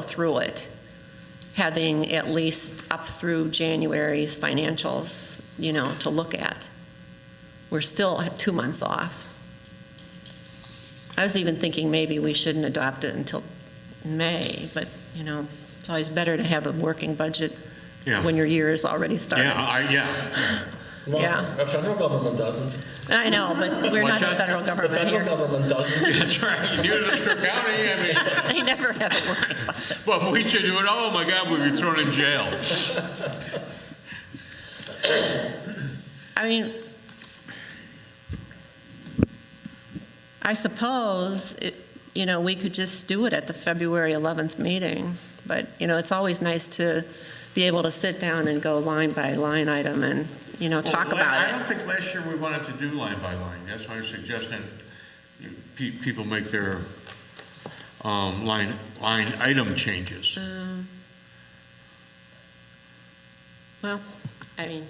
through it, having at least up through January's financials, you know, to look at. We're still two months off. I was even thinking maybe we shouldn't adopt it until May, but, you know, it's always better to have a working budget Yeah. when your year is already started. Yeah, I, yeah. Well, Yeah. the federal government doesn't. I know, but we're not What's the that? federal The government federal here. government doesn't. That's right. You do it in Cook County, I mean, They never have a working budget. but we should do it, oh my God, we'd be thrown in jail. I mean, I suppose, it- you know, we could just do it at the February 11th meeting, but, you know, it's always nice to be able to sit down and go line by line item and, you know, talk Well, la- I about don't it. think last year we wanted to do line by line. That's why I'm suggesting you- pe- people make their um, line, line item changes. Well, I mean,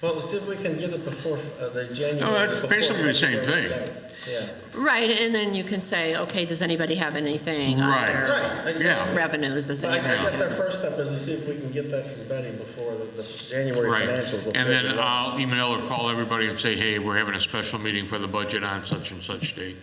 Well, see if we can get it before uh, the January. No, Oh, that's before basically the same February thing. 11th. Yeah. right, and then you can say, okay, does anybody have anything on Right. their Right, exactly. Yeah. revenues? Does But I, I anybody? guess our first step is to see if we can get that from Betty before the, the January Right. financials. Before And then uh, the- I'll email or call everybody and say, hey, we're having a special meeting for the budget on such and such date.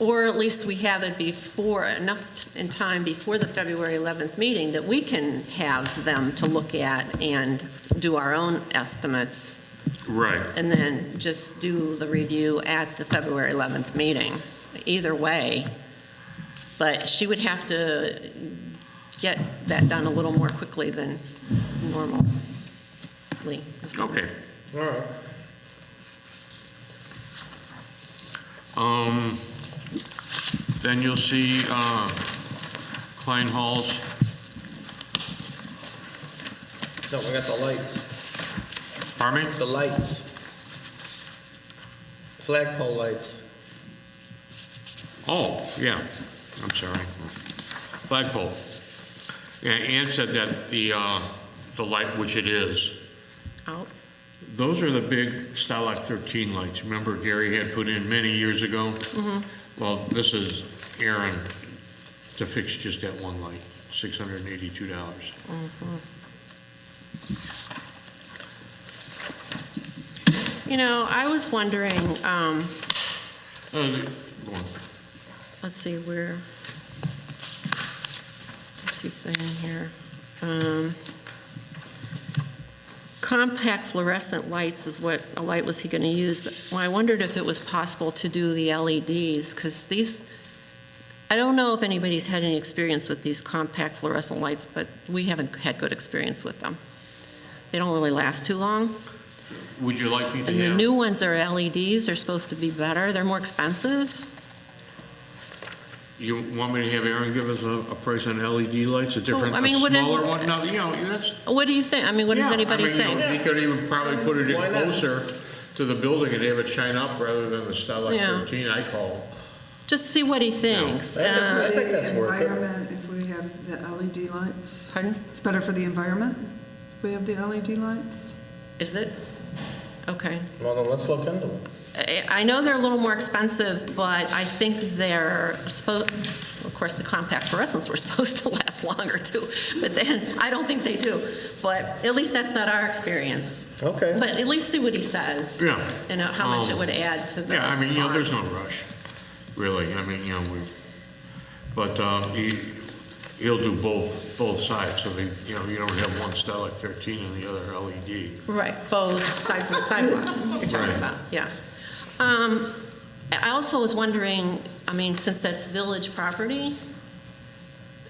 Or at least we have it before, enough t- in time before the February 11th meeting that we can have them to look at and do our own estimates, Right. and then just do the review at the February 11th meeting, either way. But she would have to get that done a little more quickly than normally. Okay. All right. Um, Then you'll see uh, Klein Hall's, No, we got the lights. pardon me? The lights. Flagpole lights. Oh, yeah, I'm sorry. Flagpole. Yeah, Ann said that the, uh, the light, which it is, Out, those are the big Stylock 13 lights. Remember Gary had put in many years ago? Mm-hmm. Well, this is Aaron to fix just that one light, $682. you know, I was wondering, um, Uh, go on. let's see, where, what's he saying here? Um, Compact fluorescent lights is what, a light was he going to use. Well, I wondered if it was possible to do the LEDs, because these, I don't know if anybody's had any experience with these compact fluorescent lights, but we haven't had good experience with them. They don't really last too long. Would you like me to And the have- new ones are LEDs, they're supposed to be better, they're more expensive. You want me to have Aaron give us a, a price on LED lights, a different, I a mean, what is- smaller one? No, you know, that's. What do you think? I mean, what yeah, does I anybody mean, you know, think? He could even probably put it in Why not? closer to the building and have it shine up rather than the Stylock Yeah. 13 I call. Just see what he thinks. I think- Uh, I think that's worth it. Environment, if we have the LED lights. Pardon? It's better for the environment, if we have the LED lights. Is it? Okay. Well, then let's look into it. I I know they're a little more expensive, but I think they're supposed, of course, the compact fluorescents were supposed to last longer too, but then, I don't think they do. But at least that's not our experience. Okay. But at least see what he says. Yeah. And how much it Um, would add to the Yeah, I mean, you know, there's no cost. rush, really. I mean, you know, we, but, um, he, he'll do both, both sides, so they, you know, you don't have one Stylock 13 and the other E LED. Right, both sides of the sidewalk you're talking Right. about, yeah. Um, I also was wondering, I mean, since that's village property,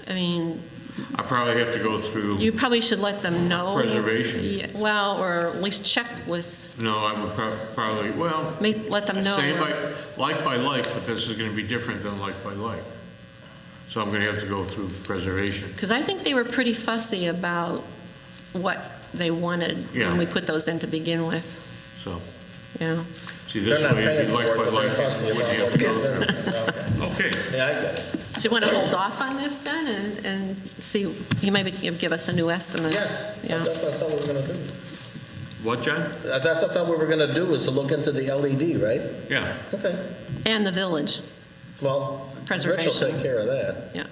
I mean, I probably have to go you through, probably should let them know. Preservation. Yeah, Well, or at least check with, no, I would prob- probably, well, make- let them know. Same like, like by like, but this is gonna be different than like by like. So I'm gonna have to go through preservation. Because I think they were pretty fussy about what they wanted Yeah. when we put those in to begin with, So, yeah. see, They're this not way, it'd paying be for like it, by but they're like, fussy you about wouldn't have what to go goes in. through. Okay. Okay, Yeah, I get it. Do you want to hold off on this then and, and see, you maybe give us a new estimate? Yes, Yeah. that's what I thought we were gonna do. what, John? Uh, That's what I thought we were gonna do, is to look into the LED, right? Yeah, Okay, And the village, well, Rich will Preservation. take care of that. yeah.